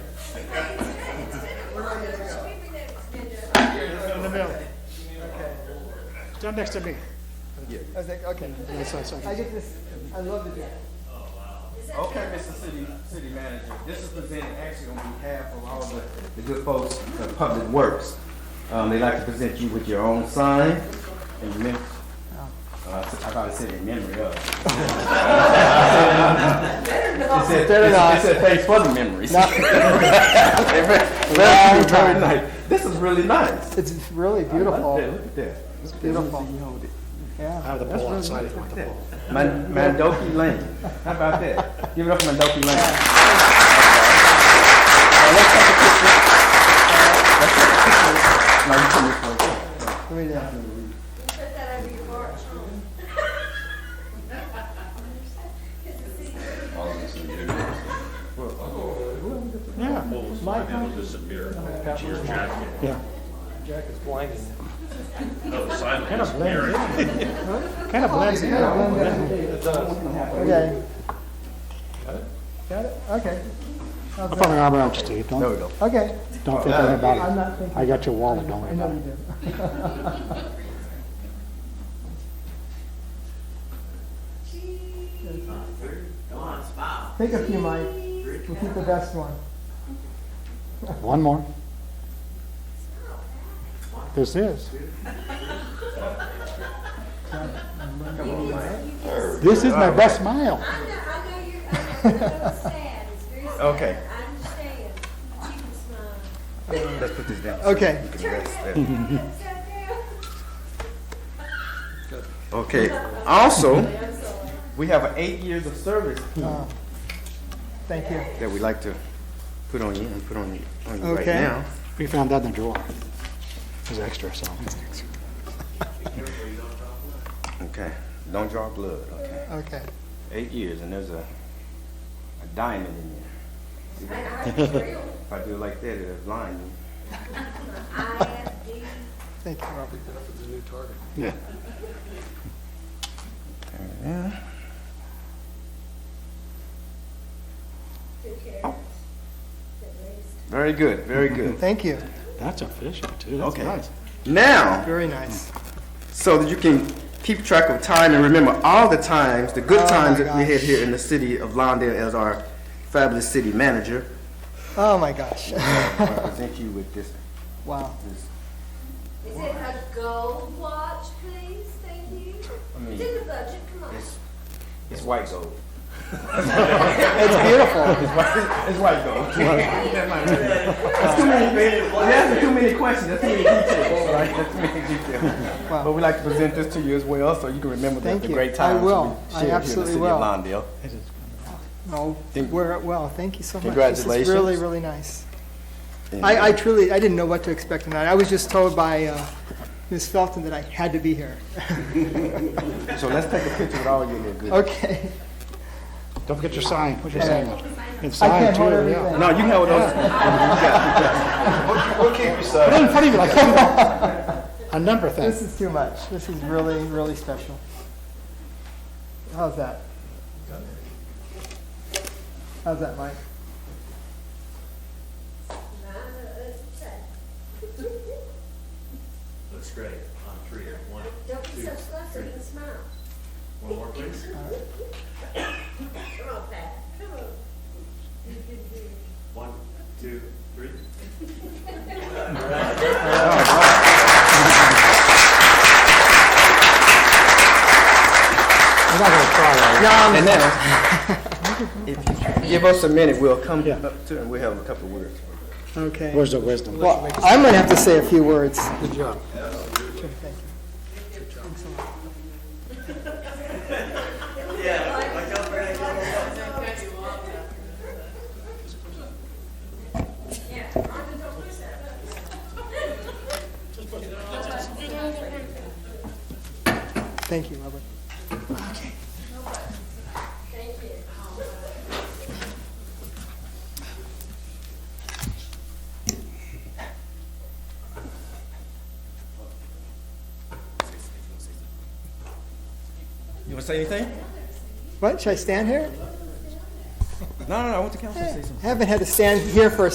in the middle. Down next to I me. was like, okay. Yes, yes, yes. I get this. I love the jacket. Okay, Mr. City, City Manager, this is presented actually on behalf of all the, the good folks of Public Works. Um, they like to present you with your own sign and mem- uh, I probably said in memory of. It said, it said- it said thanks for the memories. Very- very nice. This is really nice. It's really Look at beautiful. that, look at that. It's beautiful. I Yeah. have the ball outside if you want the ball. Man- Mandoki Lane. How about that? Give it up for Mandoki Lane. Now, you come this way. Right there. Put that over your bar at home. Yeah. My hand will disappear into your jacket. Yeah. No, Oh, the sign Kind will of blends disappear. in. Kind of blends in. Okay. Got it? Okay. I'll put my arm around you, Steve. Don't, go. Okay. don't think anything I'm about not it. thinking. I got your wallet, don't worry I know about you it. do. Take a few, Mike. We'll keep the best one. One more. This is. This is my best smile. I know, I know you're, I know it's sad, it's very sad. Okay. I understand, but you can smile. Uh, Let's put this down. Okay. You can rest there. Turn it upside down. Okay. Also, we have an eight years of service Thank you. that we like to put on you and put on you, on you right Okay. now. We found that in the drawer. It was extra, so. Okay. Don't draw blood. Okay. Okay. Eight years, and there's a a diamond in there. See that? if I do it like that, it'll blind I you. have these Thank you. Yeah. two carrots at least. Very good. Very good. Thank you. That's official, too. That's Okay. nice. now, Very nice. so that you can keep track of time and remember all the times, the good Oh, times my that we gosh. had here in the city of Lawndale as our fabulous city manager. Oh, my gosh. I present you with this. Wow. this Is it a gold watch, please? Thank you. mean- It's in the budget, come on. it's, it's white gold. It's beautiful. It's white, it's white gold. That's too many. You're asking too many questions. That's too many details. Right? That's too many details. Wow. But we like to present this to you as well, so you can remember the- Thank the you. great I times that will. we I shared absolutely here in the city will. of Lawndale. No, Thank- we're, well, thank you so much. This Congratulations. is really, really nice. And- I, I truly, I didn't know what to expect tonight. I was just told by uh, Ms. Felton that I had to be here. so let's take a picture with all your little good. Okay. Don't forget your sign. Put your sign up. And I sign, can't too, hold yeah. everything. No, you held those. Put it in front of you, like, a number thing. This is too much. This is really, really special. How's that? How's that, Mike? Looks great on three, one, Don't be so flustered and smile. one more please. Come on, Pat, come on. One, two, three. I'm not gonna try right And now, if you give us a minute, we'll come Yeah. up to and we'll have a couple of words. Okay. Where's the wisdom? Well, I'm going to have to say a few words. Good job. Sure, thank you. Thanks a lot. Thank you, Robert. You want to say anything? What, should I stand here? No, no, no. I want the council to say something. Haven't had to stand here for a